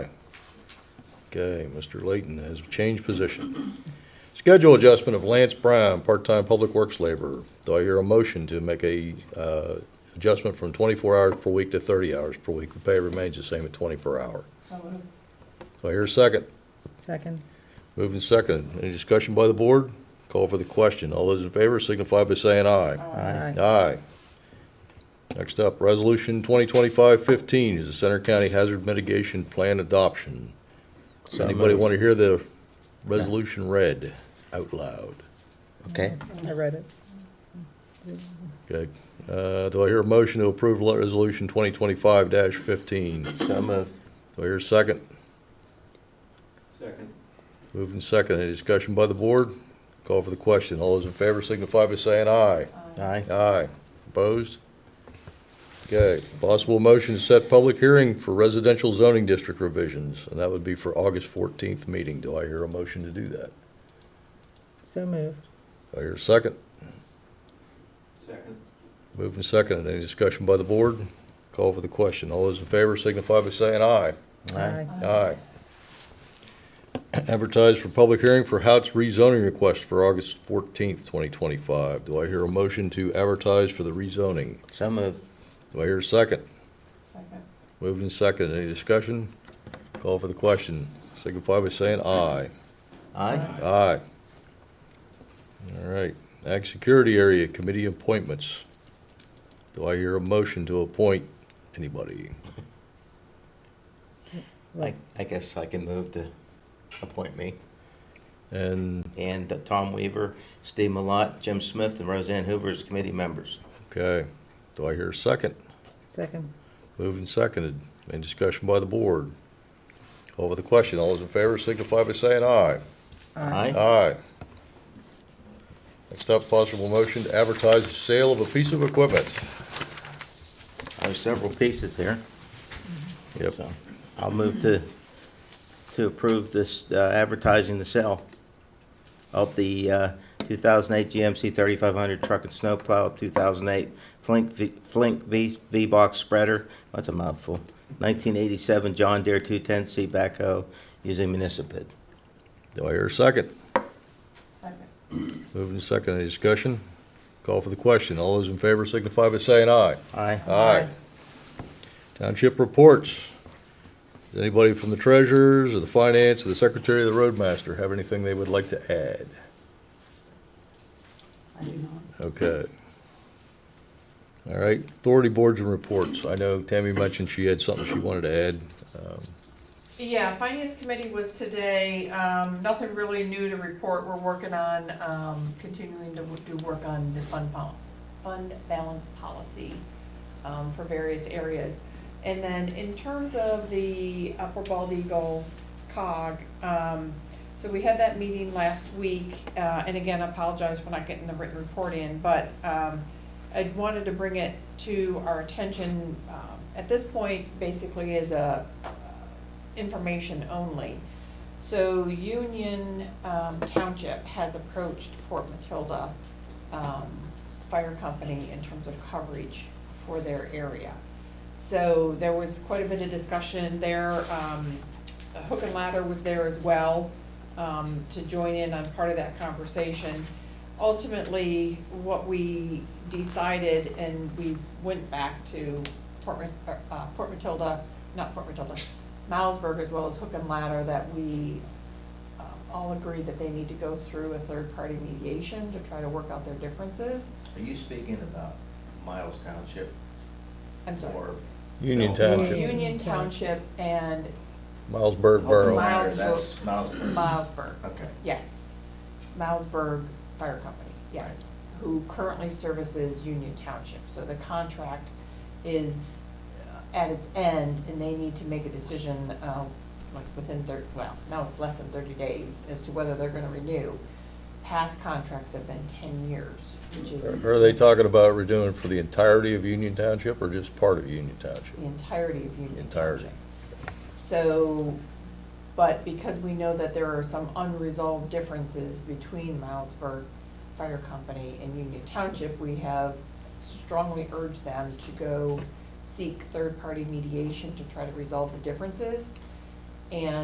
Okay, Mr. Layton has changed position. Schedule adjustment of Lance Prime, part-time public works laborer. Do I hear a motion to make a uh, adjustment from 24 hours per week to 30 hours per week? The pay remains the same at 20 per hour. So moved. Do I hear a second? Second. Moving second. Any discussion by the board? Call for the question. All those in favor signify by saying aye. Aye. Aye. Next up, Resolution 2025-15 is the Center County Hazard Mitigation Plan Adoption. Does So Anybody moved. want to hear the resolution read out loud? Okay, I read it. Okay. Uh, Do I hear a motion to approve le- Resolution 2025-15? Do so moved. I hear a second? Second. Moving second. Any discussion by the board? Call for the question. All those in favor signify by saying aye. Aye, Aye. Opposed? Okay. Possible motion to set public hearing for residential zoning district revisions, and that would be for August 14th meeting. Do I hear a motion to do that? So moved. Do I hear a second? Second. Moving second. Any discussion by the board? Call for the question. All those in favor signify by saying aye. aye, Aye. Advertise for public hearing for Hout's rezoning request for August 14th, 2025. Do I hear a motion to advertise for the rezoning? so moved. Do I hear a second? Second. Moved and seconded. Any discussion? Call for the question. Signify by saying aye. Aye, Aye. All right. Ag Security Area Committee appointments. Do I hear a motion to appoint anybody? I, I guess I can move to appoint me. And, And uh, Tom Weaver, Steve Malott, Jim Smith, and Roseanne Hoover as committee members. okay, do I hear a second? Second. Moved and seconded. Any discussion by the board? Call for the question. All those in favor signify by saying aye. Aye, Aye. Next up, possible motion to advertise the sale of a piece of equipment. there's several pieces here. Yep. So I'll move to, to approve this uh, advertising the sale of the uh, 2008 GMC 3500 truck and snowplow, 2008 Flink, V- Flink V- V-Box spreader, that's a mouthful, 1987 John Deere 210C backhoe using municipal. Do I hear a second? Second. Moving to second, any discussion? Call for the question. All those in favor signify by saying aye. Aye. Aye. Township reports. Does anybody from the treasurers or the finance or the secretary or the roadmaster have anything they would like to add? I do not. Okay. All right, authority boards and reports. I know Tammy mentioned she had something she wanted to add. Um, Yeah, Finance Committee was today, um, nothing really new to report, we're working on, um, continuing to do work on the fund pol- fund balance policy, um, for various areas. And then in terms of the Upper Bald Eagle cog, um, so we had that meeting last week, uh, and again, I apologize for not getting the written report in, but, um, I wanted to bring it to our attention, um, at this point, basically as a, uh, information only. So Union um, Township has approached Port Matilda um, Fire Company in terms of coverage for their area. So there was quite a bit of discussion there. Um, Hook and Ladder was there as well um, to join in on part of that conversation. Ultimately, what we decided, and we went back to Port Ma- uh, Port Matilda, not Port Matilda, Milesburg as well as Hook and Ladder, that we um, all agreed that they need to go through a third-party mediation to try to work out their differences. Are you speaking about Miles Township I'm sorry. Union No. Township, Union Township and Milesburg Borough. Mile- Oh, Miles that's Miles. Milesburg. Okay. Yes. Milesburg Fire Company, yes, who currently services Union Township. So the contract is uh, at its end and they need to make a decision, uh, like within thirty, well, now it's less than thirty days as to whether they're gonna renew. Past contracts have been ten years, which is. Are they talking about redoing for the entirety of Union Township or just part of Union Township? The entirety of Union Entirety. Township. So, but because we know that there are some unresolved differences between Milesburg Fire Company and Union Township, we have strongly urged them to go seek third-party mediation to try to resolve the differences. And